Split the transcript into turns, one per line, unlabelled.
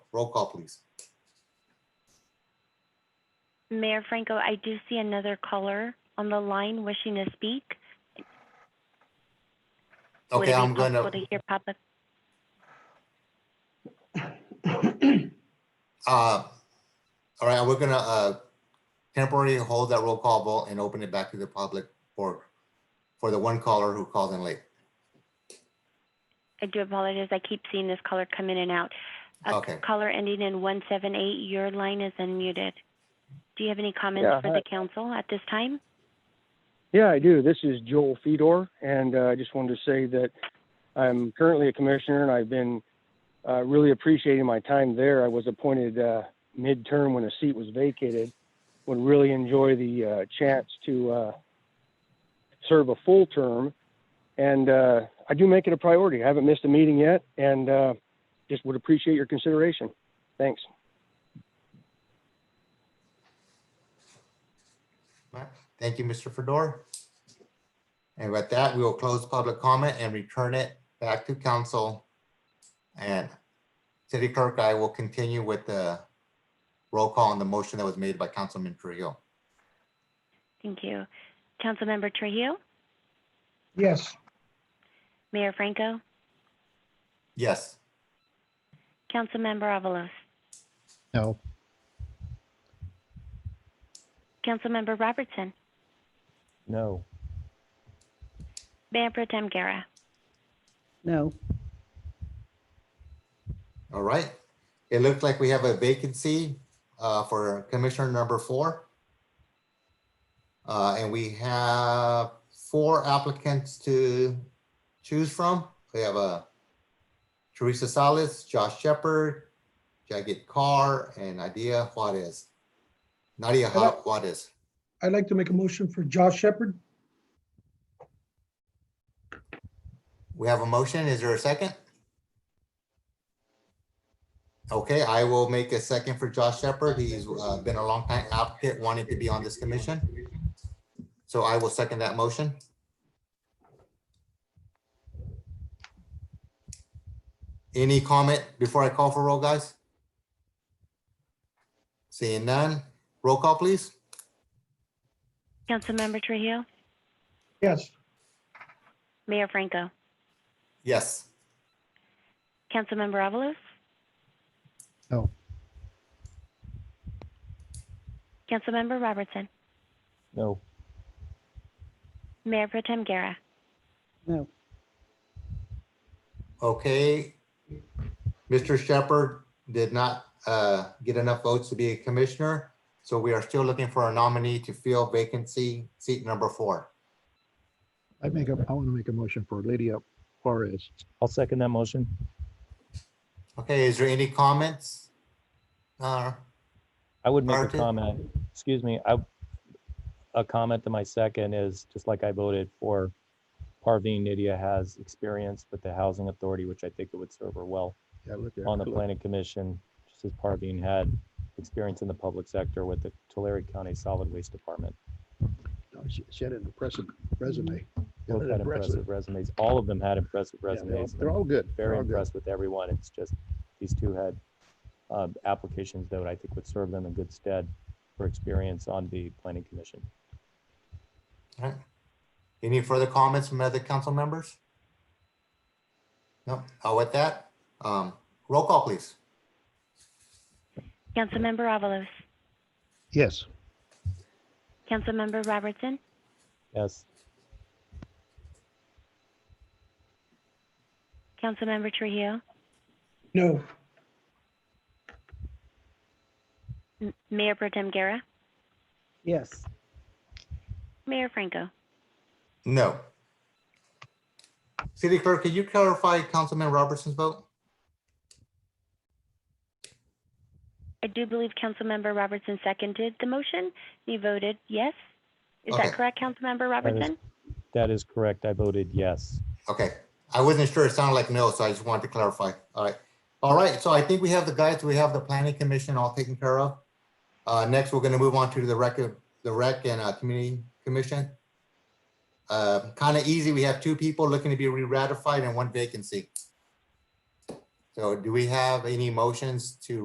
Roll call, please.
Mayor Franco, I do see another caller on the line wishing to speak. Would
Okay,
it be
I'm going
possible
to,
to hear pop up?
uh, all right, we're gonna, uh, temporarily hold that roll call vote and open it back to the public for, for the one caller who called in late.
I do apologize. I keep seeing this caller come in and out. Uh,
Okay.
Caller ending in 178, your line is unmuted. Do you have any comments
Yeah,
for
hi.
the council at this time?
Yeah, I do. This is Joel Fedor, and uh, I just wanted to say that I'm currently a commissioner, and I've been uh, really appreciating my time there. I was appointed uh, midterm when a seat was vacated. Would really enjoy the uh, chance to uh, serve a full term, and uh, I do make it a priority. I haven't missed a meeting yet, and uh, just would appreciate your consideration. Thanks.
All right. Thank you, Mr. Fedor. And with that, we will close public comment and return it back to council. And City Clerk, I will continue with the roll call on the motion that was made by Councilman Trujillo.
Thank you. Councilmember Trujillo,
Yes.
Mayor Franco,
Yes.
Councilmember Avalos,
No.
Councilmember Robertson,
No.
Mayor Pro Tem Guerra.
No.
All right. It looks like we have a vacancy uh, for Commissioner number four. Uh, And we have four applicants to choose from. We have uh, Teresa Salas, Josh Shepherd, Jagat Carr, and Nadia Juarez. Nadia Ju- Juarez.
I'd like to make a motion for Josh Shepherd.
We have a motion. Is there a second? Okay, I will make a second for Josh Shepherd. He's uh, been a long time applicant, wanting to be on this commission. So I will second that motion. Any comment before I call for roll, guys? Seeing none, roll call, please.
Councilmember Trujillo,
Yes.
Mayor Franco,
Yes.
Councilmember Avalos?
No.
Councilmember Robertson,
No.
Mayor Pro Tem Guerra.
No.
Okay. Mr. Shepherd did not uh, get enough votes to be a commissioner, so we are still looking for a nominee to fill vacancy, seat number four.
I make a, I want to make a motion for Lydia Juarez.
I'll second that motion.
Okay, is there any comments? Uh,
I would make a
Market?
comment, excuse me, I, a comment to my second is, just like I voted for Parveen Nidia has experience with the Housing Authority, which I think it would serve her well
Yeah, look at
on the
Cla-
planning commission, just as Parveen had experience in the public sector with the Tulare County Solid Waste Department.
no, She she had an impressive resume. Yeah,
Both
an
had
impressive-
impressive resumes. All of them had impressive
yeah, they're all-
resumes.
They're all good. They're
Very
all good.
impressed with everyone. It's just, these two had uh, applications that I think would serve them in good stead for experience on the planning commission.
Any further comments from other council members? No, uh, with that, um, roll call, please.
Councilmember Avalos,
Yes,
Councilmember Robertson,
Yes,
Councilmember Trujillo,
No.
M- Mayor Pro Tem Guerra,
Yes.
Mayor Franco.
No. City Clerk, can you clarify Councilman Robertson's vote?
I do believe Councilmember Robertson seconded the motion. He voted yes. Is
Okay.
that correct, Councilmember Robertson?
that is correct. I voted yes.
Okay, I wasn't sure. It sounded like no, so I just wanted to clarify. All right. All right, so I think we have the guides, we have the planning commission all taken care of. Uh, next, we're gonna move on to the record, the rec and uh, community commission. Uh, kind of easy. We have two people looking to be re-ratified and one vacancy. So do we have any motions to